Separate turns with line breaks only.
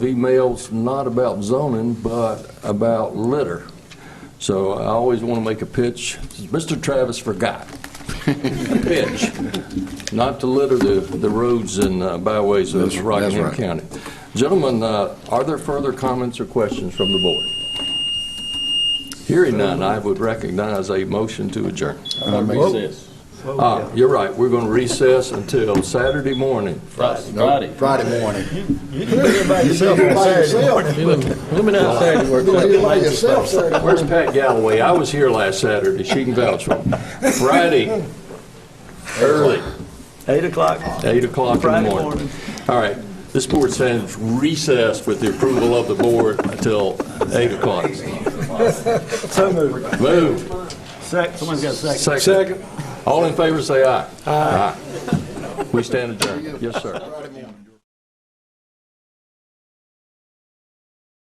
emails not about zoning, but about litter. So I always want to make a pitch. Mr. Travis forgot. A pitch, not to litter the, the roads and uh, byways of
That's- that's
Rockingham
right.
County. Gentlemen, uh, are there further comments or questions from the board? Hearing none, I would recognize a motion to adjourn.
Recess.
Ah, You're right, we're going to recess until Saturday morning.
Friday.
Friday morning.
Coming out Saturday, we're
Where's Pat Galloway? I was here last Saturday, she can vouch for me. Friday, early,
Eight o'clock.
8 o'clock in the
Friday
morning.
morning.
All right, this board stands recessed with the approval of the board until 8 o'clock.
So moved.
Move,
Sec, someone's got a second.
second. All in favor, say aye. Aye. We stand adjourned. Yes, sir.